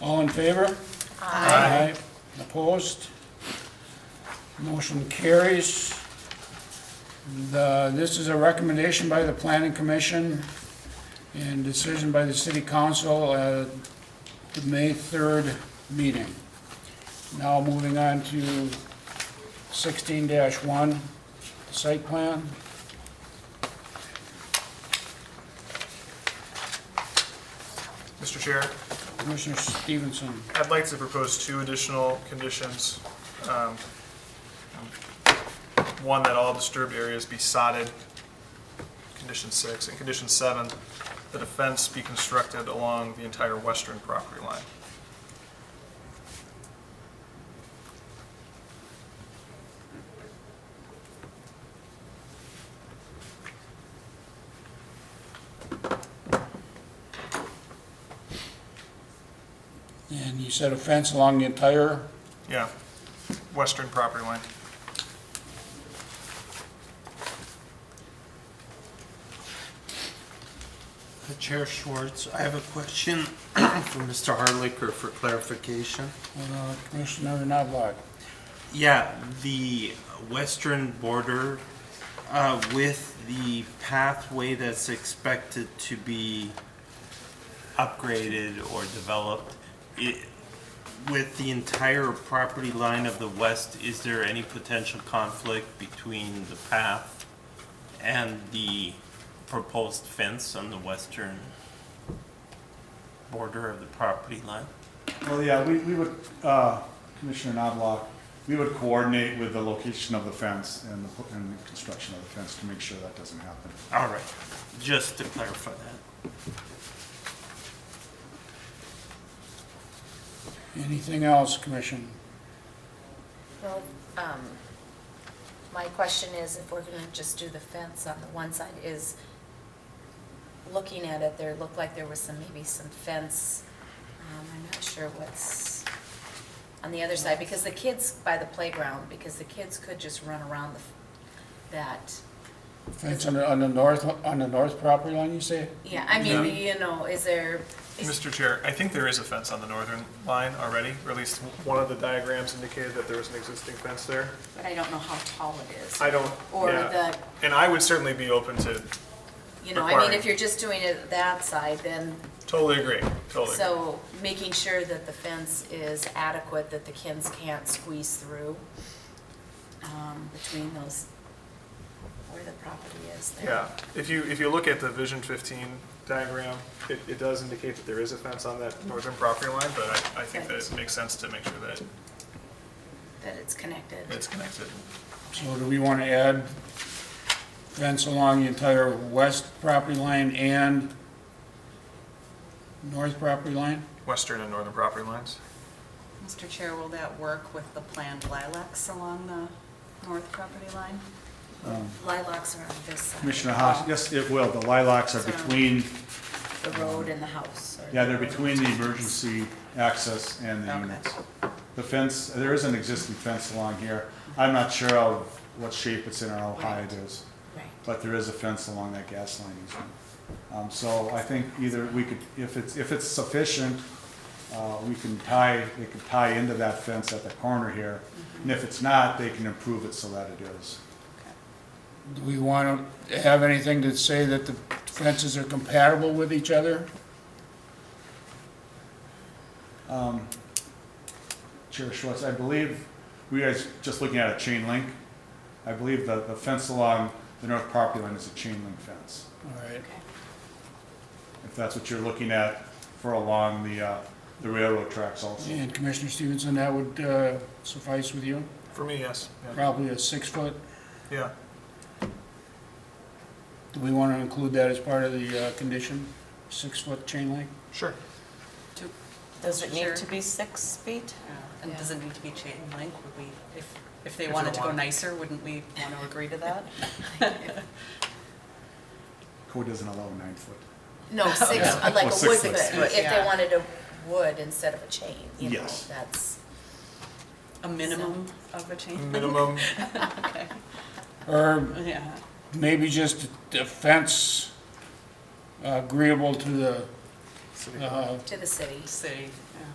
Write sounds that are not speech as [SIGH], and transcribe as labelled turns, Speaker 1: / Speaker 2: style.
Speaker 1: All in favor? Aye. Opposed? Motion carries. The- This is a recommendation by the planning commission and decision by the city council at the May 3rd meeting. Now moving on to 16-1, site plan.
Speaker 2: Mr. Chair,
Speaker 1: Commissioner Stevenson.
Speaker 2: I'd like to propose two additional conditions. Um, One, that all disturbed areas be sodded, condition six, and condition seven, that a fence be constructed along the entire western property line.
Speaker 1: And you said a fence along the entire,
Speaker 2: Yeah, western property line.
Speaker 3: Chair Schwartz, I have a question [CLEARS THROAT] for Mr. Harlicker for clarification.
Speaker 1: uh, Commissioner Knobloch.
Speaker 3: Yeah, the western border uh, with the pathway that's expected to be upgraded or developed, i- with the entire property line of the west, is there any potential conflict between the path and the proposed fence on the western border of the property line?
Speaker 4: Well, yeah, we, we would, uh, Commissioner Knobloch, we would coordinate with the location of the fence and the, and the construction of the fence to make sure that doesn't happen.
Speaker 3: All right, just to clarify that.
Speaker 1: Anything else, Commission?
Speaker 5: Well, um, my question is, if we're gonna just do the fence on the one side, is, looking at it, there looked like there was some, maybe some fence, um, I'm not sure what's on the other side, because the kids by the playground, because the kids could just run around the, f- that,
Speaker 1: Fence on the, on the north, on the north property line, you say?
Speaker 5: yeah, I mean, you know, is there, is,
Speaker 2: Mr. Chair, I think there is a fence on the northern line already, or at least one of the diagrams indicated that there was an existing fence there.
Speaker 5: but I don't know how tall it is.
Speaker 2: I don't,
Speaker 5: Or
Speaker 2: yeah.
Speaker 5: the-
Speaker 2: And I would certainly be open to,
Speaker 5: You know, I mean,
Speaker 2: requiring-
Speaker 5: if you're just doing it that side, then
Speaker 2: totally agree, totally agree.
Speaker 5: So making sure that the fence is adequate, that the kids can't squeeze through um, between those, where the property is there.
Speaker 2: Yeah, if you, if you look at the Vision 15 diagram, it, it does indicate that there is a fence on that northern property line, but I, I think that it makes sense to make sure that
Speaker 5: That it's connected.
Speaker 2: it's connected.
Speaker 1: So do we want to add fence along the entire west property line and north property line?
Speaker 2: Western and northern property lines?
Speaker 6: Mr. Chair, will that work with the planned lilacs along the north property line?
Speaker 5: Lilacs are on this side,
Speaker 4: Um, Commissioner Haas, yes, it will, the lilacs are
Speaker 5: Sorry.
Speaker 4: between,
Speaker 5: the road and the house. or-
Speaker 4: yeah, they're between the emergency access and the
Speaker 5: Okay.
Speaker 4: units. The fence, there is an existing fence along here, I'm not sure of what shape it's in or how high it is,
Speaker 5: Right.
Speaker 4: but there is a fence along that gas line easement. Um, so I think either we could, if it's, if it's sufficient, uh, we can tie, they could tie into that fence at the corner here. And if it's not, they can improve it so that it is.
Speaker 1: Do we want to have anything to say that the fences are compatible with each other?
Speaker 4: Um, Chair Schwartz, I believe, we guys just looking at a chain link. I believe the, the fence along the north property line is a chain link fence.
Speaker 1: All right,
Speaker 4: If that's what you're looking at for along the, uh, the railroad tracks also.
Speaker 1: and Commissioner Stevenson, that would uh, suffice with you?
Speaker 2: For me, yes, yeah.
Speaker 1: Probably a six foot.
Speaker 2: Yeah,
Speaker 1: Do we want to include that as part of the uh, condition? Six foot chain link?
Speaker 2: sure.
Speaker 7: Does it need
Speaker 6: Sure.
Speaker 7: to be six feet?
Speaker 6: And does it need to be chain link? Would we, if, if they
Speaker 2: If they
Speaker 6: wanted to go
Speaker 2: wanted.
Speaker 6: nicer, wouldn't we want to agree to that?
Speaker 4: Code doesn't allow nine foot.
Speaker 5: No,
Speaker 6: [LAUGHS]
Speaker 5: six, uh, like a
Speaker 4: Well,
Speaker 5: wood,
Speaker 4: six
Speaker 5: foot,
Speaker 4: foot,
Speaker 5: if they
Speaker 6: yeah.
Speaker 5: wanted a wood instead of a chain, you know,
Speaker 4: Yes.
Speaker 5: that's.
Speaker 6: A minimum of a
Speaker 2: [LAUGHS]
Speaker 6: chain? link?
Speaker 2: Minimum,
Speaker 6: Okay,
Speaker 1: Or
Speaker 6: yeah.
Speaker 1: maybe just a fence agreeable to the, uh,
Speaker 5: To the city.
Speaker 6: City, yeah.